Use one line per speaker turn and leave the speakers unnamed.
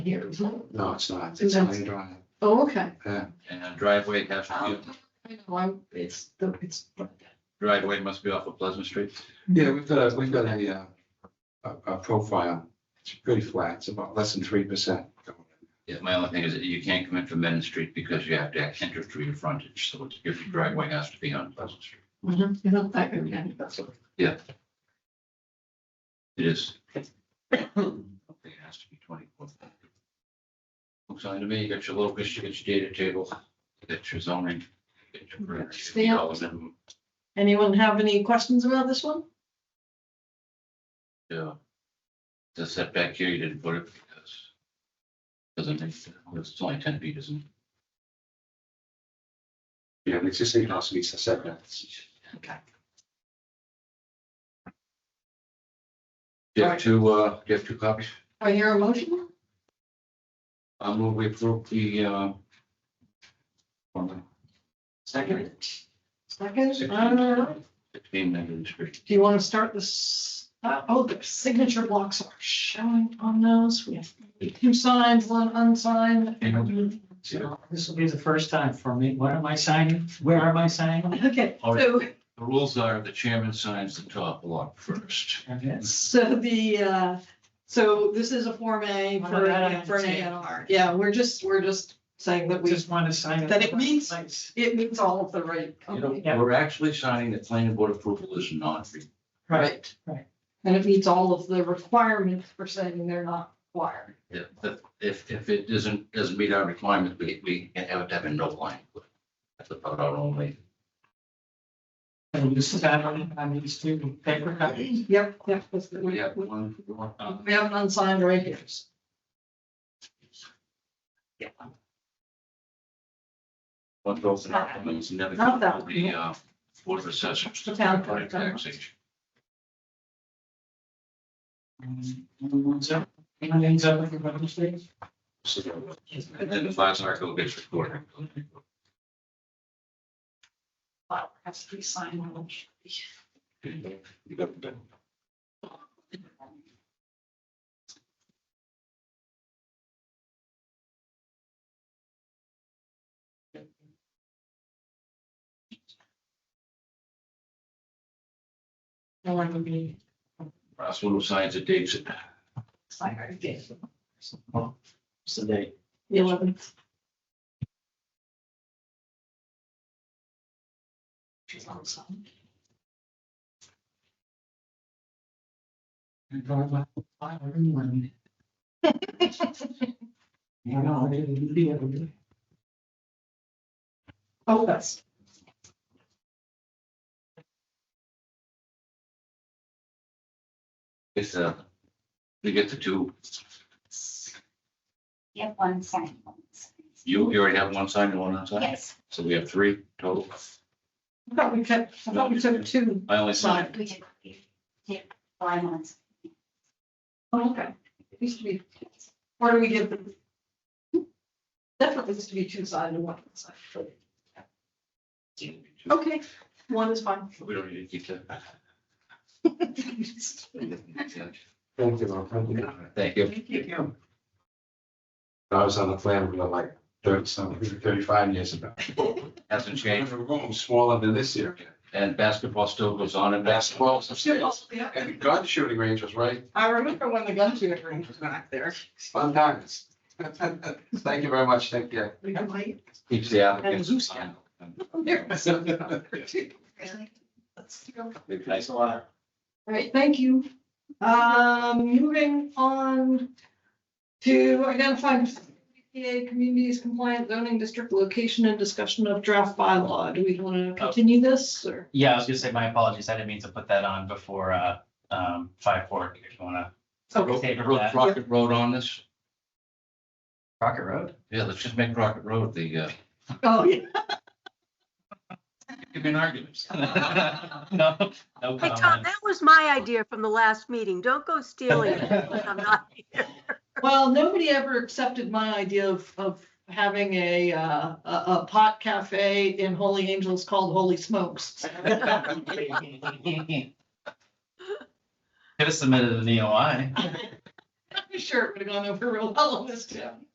here, is it?
No, it's not. It's
It's not.
Highland Drive.
Oh, okay.
Yeah.
And a driveway has to
Um,
be,
I know, I'm, it's, the it's,
driveway must be off of Pleasant Street.
Yeah, we've got a, we've got a, uh, a, a profile. It's pretty flat. It's about less than three percent.
Yeah, my only thing is that you can't come in from Main Street because you have to enter through your frontage, so it's- your driveway has to be on Pleasant Street.
Mhm, you know, that, yeah, that's what.
It is. It has to be twenty-four. Looks like to me, you got your locus, you got your data table, you got your zoning. you got your perimeter, you got all of them.
Anyone have any questions about this one?
Yeah. The setback here, you didn't put it because. Doesn't make, sense. it's only ten feet, isn't it?
Yeah, the existing house needs a setback.
Okay.
Do you have two, uh, do you have two copies?
Are you a motion?
I move we approve the, uh. on
Second. Second,
Second.
uh,
the Sixteen Linden Street.
do you want to start this? Uh, oh, the signature blocks are showing on those. We have two signs, one unsigned.
Yeah.
This will be the first time for me. What am I signing? Where am I signing?
Okay,
All right.
so
The rules are the chairman signs the top block first.
Okay.
So the, uh, so this is a Form A
Well,
for,
that I
for an A
understand.
and R. Yeah, we're just, we're just saying that we,
Just want to sign.
That it means-
Right.
it meets all of the right.
You know,
company,
Yeah.
we're actually signing that planning board approval is not. re-
Right.
right.
And it meets all of the requirements for saying they're not required.
If, if, if it doesn't, doesn't meet our requirements, we, we have to have a no line. That's about our only.
And you sign on, on these two paper copies.
Yep, yep. that's good.
We
We
have
we-
one, one, uh,
we have an unsigned right here. so.
one goes in our comments, never.
Not that one.
The, uh, board of assessors.
The town.
Right, taxation.
Um, Anyone's up? Anyone's up with your brother's thing?
So, And then the fire cycle gets recorded.
File Has to be signed. on each.
You got that?
No one would be
Russell who signs it, dates it.
signed. The
So they.
eleventh. She's unsigned.
You know, I didn't leave it.
Oh, that's.
It's, uh, we get the two,
You have one sign. one sign.
you, you already have one signed and one unsigned,
Yes,
so we have three total.
I thought we took, I thought we took two.
I only signed,
we did. Yeah, five months.
Oh, okay. It used to be, or do we give them? Definitely used to be two sided and one side.
we
Okay, one is fine.
don't need to keep that.
Thank you, Ron. Thank you.
Thank you.
I was on the plan for like thirty something, thirty-five years ago.
Hasn't changed,
The room smaller than this year.
and basketball still goes on and basketball.
And the gun shooting range was right
I remember when the gun shooting range was back there.
Fun times. Thank you very much. Thank you.
We had like.
Keeps the applicants.
And Zeus. There was another two. Let's go.
Nice a lot.
All right, thank you. Um, moving on to identify PA communities compliant zoning district location and discussion of draft bylaw. Do we want to continue this or?
Yeah, I was gonna say, my apologies, I didn't mean to put that on before, uh, um, five four, if you wanna.
Okay.
Favor that.
Rocket Road on this,
Rocket Road?
yeah, let's just make Rocket Road the, uh,
Oh, yeah.
give me an argument.
No, no
Hey, Tom,
comment.
that was my idea from the last meeting. Don't go stealing it when I'm not here.
Well, nobody ever accepted my idea of, of having a, uh, a, a pot cafe in Holy Angels called Holy Smokes.
E Could have submitted an EOI.
I'm sure it would have gone over real well on this town.